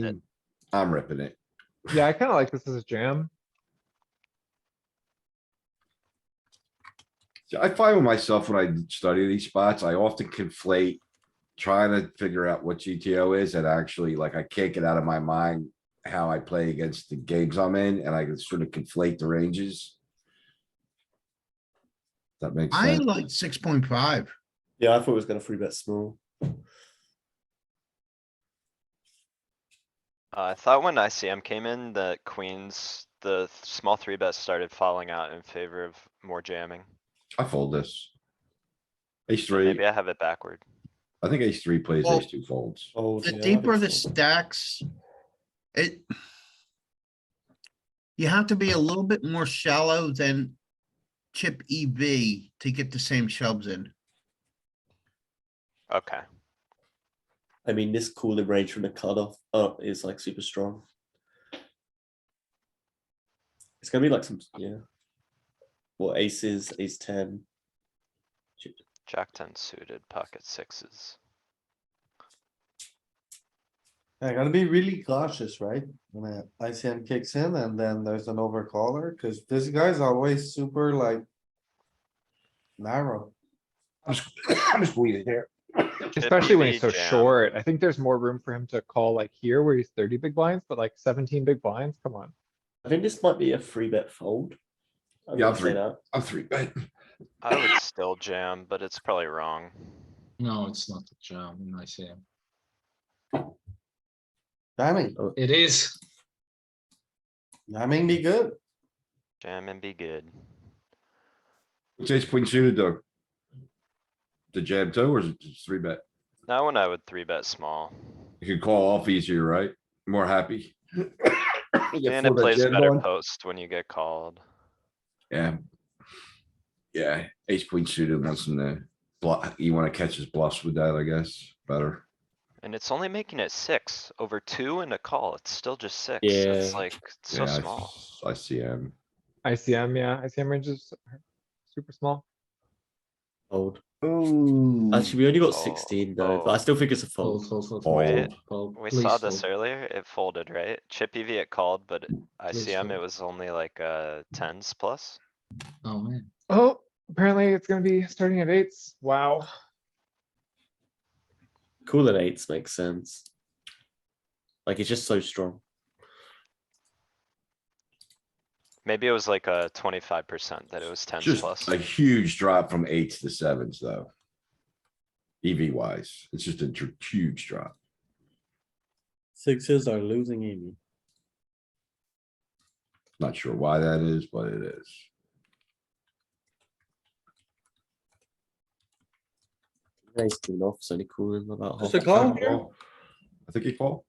That- I'm ripping it. Yeah, I kinda like this as a jam. So I find with myself when I study these spots, I often conflate trying to figure out what GTO is and actually like I can't get out of my mind how I play against the games I'm in and I can sort of conflate the ranges. That makes I sense. like six point five. Yeah, I thought it was going to three bet small. Uh, I thought when ICM came in that queens, the th- small three bets started falling out in favor of more jamming. I fold this. Ace So three, Maybe I have it backward. I think ace three plays Well, ace two folds. Fold, The yeah, I deeper think the so. stacks, it. You have to be a little bit more shallow than chip EV to get the same shoves in. Okay, I mean, this cooling range from the cutoff up is like super strong. It's going to be like some, yeah. Well, aces, ace 10. jack ten suited, pocket sixes. I gotta be really cautious, right? When a ICM kicks in and then there's an overcaller, cause this guy's always super like. Narrow. I'm s- I'm squeezing here. Especially when he's so EV jam. short. I think there's more room for him to call like here where he's thirty big blinds, but like seventeen big blinds, come on. I think this might be a three bet fold. I'm Yeah, gonna three. say that. I'm three bet. I would still jam, but it's probably wrong. No, it's not a jam in ICM. Jamming, Oh, It is. jamming be good. Jam and be good. It's ace queen suited though. The jam two or is it just three bet? That one I would three bet small. You can call off easier, right? More happy. You get And it four bet plays jam better going. post when you get called. Yeah. Yeah, ace queen suited wants him to block, you wanna catch his bluffs with that, I guess, better. And it's only making it six over two and a call. It's still just six. It's Yeah. like it's so Yeah, I small. s- I see him. ICM, yeah, ICM ranges are super small. Fold. Oh. Actually, we only got Oh, 16 though, but I fold. still think it's a Fold, fold. fold, fold, Fold. fold, fold. We Please saw this fold. earlier. It folded, right? Chip EV it called, but ICM it fold. was only like uh tens plus. Oh, man. Oh, apparently it's gonna be starting at eights. Wow. Cooling eights makes sense. Like it's just so strong. Maybe it was like a twenty-five percent that it was tens plus. Just a huge drop from eights to sevens, though. EV wise, it's just a dr- huge drop. Sixes are losing EV. Not sure why that is, but it is. Ace queen off, it's only cooling about half. Just a call here? I think he called.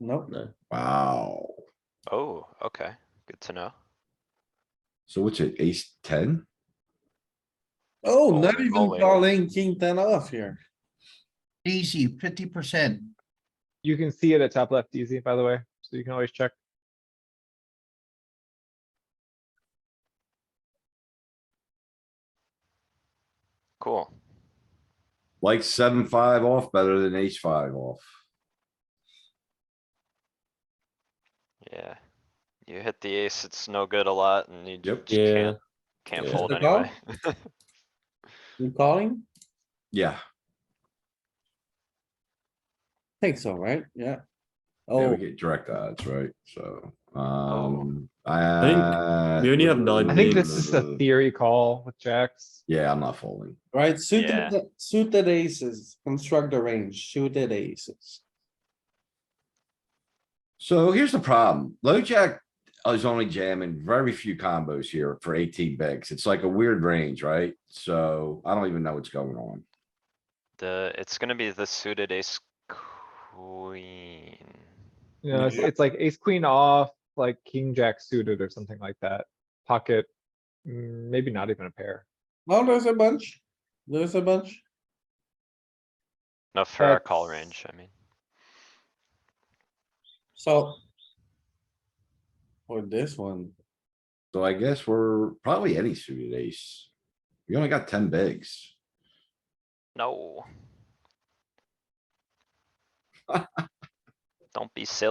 Nope, No, Wow. Oh, okay. Good to know. So what's it, ace ten? oh, not Only- even only. calling king ten off here. Easy, fifty percent. You can see it at top left easy, by the way, so you can always check. Cool. Like seven, five off better than ace five off. Yeah. You hit the ace, it's no good a lot and you Yep. just can't, can't Yeah. fold Just a call? anyway. You calling? Yeah, Think so, right? Yeah. and Oh, we get direct odds, right? So, Oh. um, think I. we only have nine I think this is a theory call with jacks. Yeah, I'm not folding. right, Yeah. suited, suited aces, construct the range, suited aces. So here's the problem. Low jack is only jamming very few combos here for eighteen bigs. It's like a weird range, right? So I don't even know what's going on. The, it's gonna be the suited ace queen. You know, it's, it's like ace queen off, like king jack suited or something like that. Pocket, mm, maybe not even a pair. No, there's a bunch, there's a bunch. No, for our call That's- range, I mean. So. Or this one, So I guess we're probably any suited ace. We only got ten bigs. No. Don't be silly.